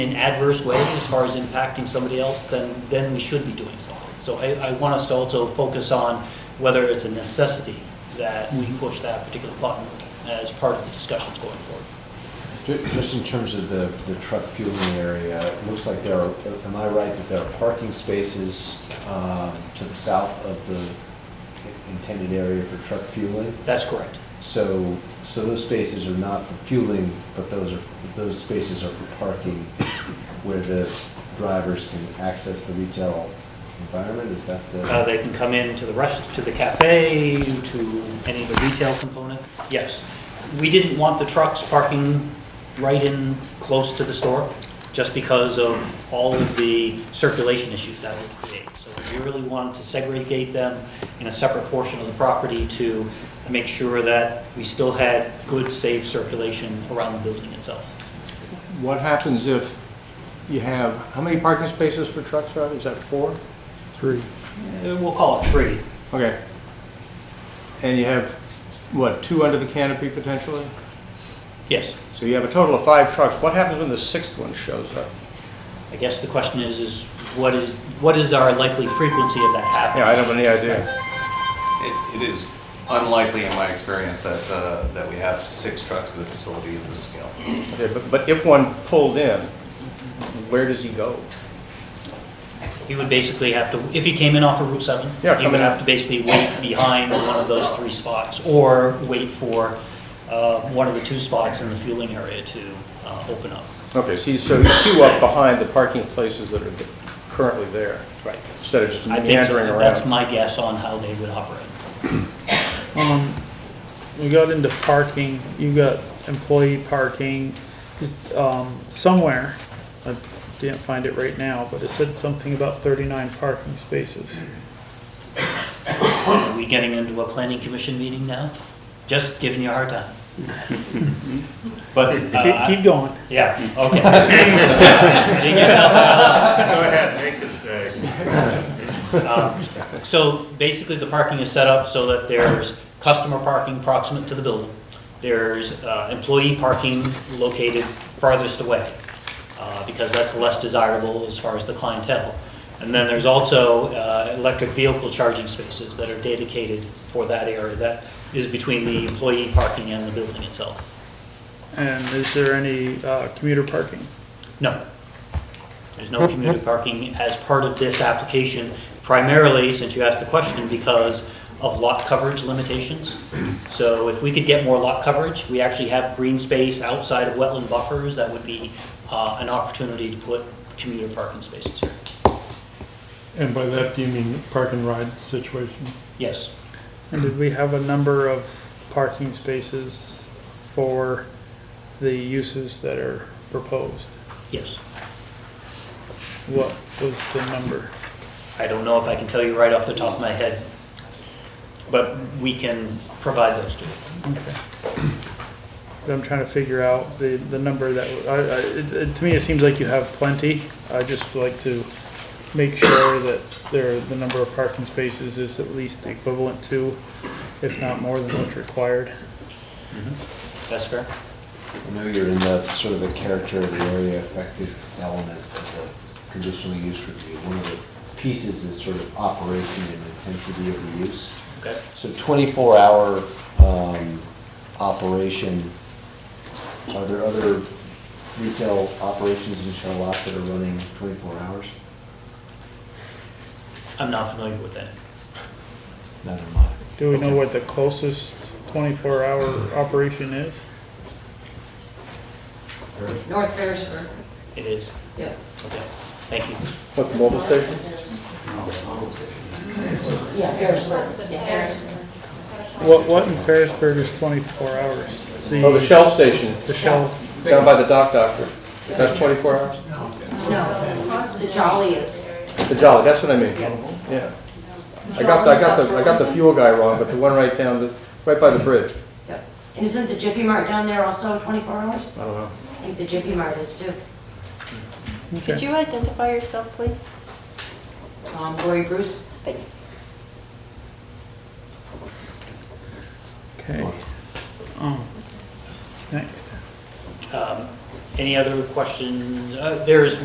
an adverse way as far as impacting somebody else, then, then we should be doing something. So I, I want us to also focus on whether it's a necessity that we push that particular button as part of the discussions going forward. Ju- Just in terms of the, the truck fueling area, it looks like there are, am I right that there are parking spaces um, to the south of the intended area for truck fueling? That's correct. So, so those spaces are not for fueling, but those are, those spaces are for parking where the drivers can access the retail environment, is that Uh, the? they can come in to the rest, to the cafe, to any of the retail component, yes. We didn't want the trucks parking right in close to the store, just because of all of the circulation issues that would create. So we really wanted to segregate them in a separate portion of the property to make sure that we still had good, safe circulation around the building itself. What happens if you have, how many parking spaces for trucks, Rob? Is that four? Three. Uh, We'll call it three. Okay. And you have, what, two under the canopy potentially? Yes. So you have a total of five trucks. What happens when the sixth one shows up? I guess the question is, is what is, what is our likely frequency of that happening? Yeah, I don't have any idea. It, it is unlikely in my experience that, uh, that we have six trucks at the facility of this scale. Okay, but, but if one pulled in, where does he go? He would basically have to, if he came in off of Route 7, Yeah, he come would in. have to basically wait behind one of those three spots, or wait for uh, one of the two spots in the fueling area to uh, open up. Okay, see, so you queue up behind the parking places that are currently there, Right. instead of just I think meandering so. that's around. my guess on how they would operate. Um, we got into parking, you got employee parking, just, um, somewhere, I didn't find it right now, but it said something about thirty-nine parking spaces. Are we getting into a planning commission meeting now? Just giving you a hard time. But, uh, Keep, keep going. yeah, okay. Dig yourself out. Go ahead, make this day. Um, So basically, the parking is set up so that there's customer parking proximate to the building. There's uh, employee parking located farthest away, uh, because that's less desirable as far as the clientele. And then there's also uh, electric vehicle charging spaces that are dedicated for that area that is between the employee parking and the building itself. And is there any, uh, commuter parking? No. There's no commuter parking as part of this application, primarily, since you asked the question, because of lot coverage limitations. So if we could get more lot coverage, we actually have green space outside of wetland buffers, that would be uh, an opportunity to put commuter parking spaces here. And by that, do you mean park and ride situation? Yes, And did we have a number of parking spaces for the uses that are proposed? yes. What was the number? I don't know if I can tell you right off the top of my head, but we can provide those to you. I'm trying to figure out the, the number that, I, I, it, it- to me, it seems like you have plenty. I just would like to make sure that there, the number of parking spaces is at least equivalent to, if not more than what's required. That's fair? I know you're in the, sort of the character of the area affected element of the conditional use review. One of the pieces is sort of operation and intensity of the use. Okay. So 24-hour um, operation, are there other retail operations in Charlotte that are running 24 hours? I'm not familiar with that. Neither am I. Do we know what the closest twenty-four hour operation is? North Ferrisburg, It is? yeah. Okay, thank you. What's the mobile station? Yeah, Ferrisburg, yeah, Ferrisburg. What, what in Ferrisburg is twenty-four hours? Oh, the Shell station, The Shell, down by the dock doctor. That's 24 hours? No, the Jolly is. The Jolly, that's what I mean. Yeah. I got, the- I got the, I got the fuel guy wrong, but the one right down, the right by the bridge. Yep. And isn't the Jiffy Mart down there also 24 hours? I don't know. I think the Jiffy Mart is too. okay. Could you identify yourself, please? Um, Lori Bruce, Okay. Um, next. Um, Any other questions? Uh, There's